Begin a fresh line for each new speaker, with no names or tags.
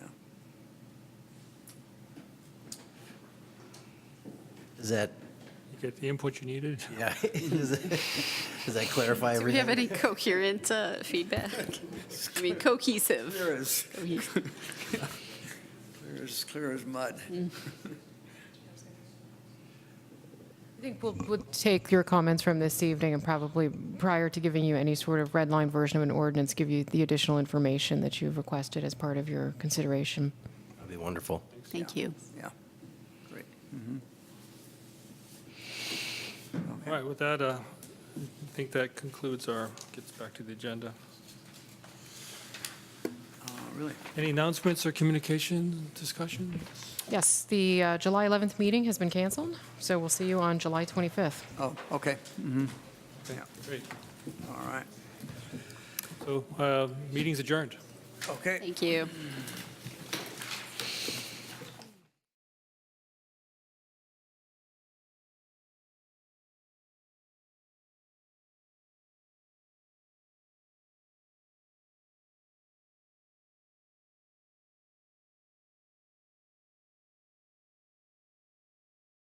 Does that,
You get the input you needed?
yeah, does that- does that clarify
Do we have
everything?
any coherent uh, feedback? I mean, cohesive.
Clear as,
Cohesive.
clear as, clear as mud.
Mm.
I think we'll, we'll take your comments from this evening and probably, prior to giving you any sort of red line version of an ordinance, give you the additional information that you've requested as part of your consideration.
That'd be wonderful.
Thank you.
Yeah, great.
All right, with that, uh, I think that concludes our, gets back to the agenda.
Uh, Really,
Any announcements or communication discussion?
Yes, the uh, July 11th meeting has been canceled, so we'll see you on July 25th.
oh, okay,
Okay,
Yeah.
Great.
all right,
So, uh, meeting's adjourned.
okay.
Thank you.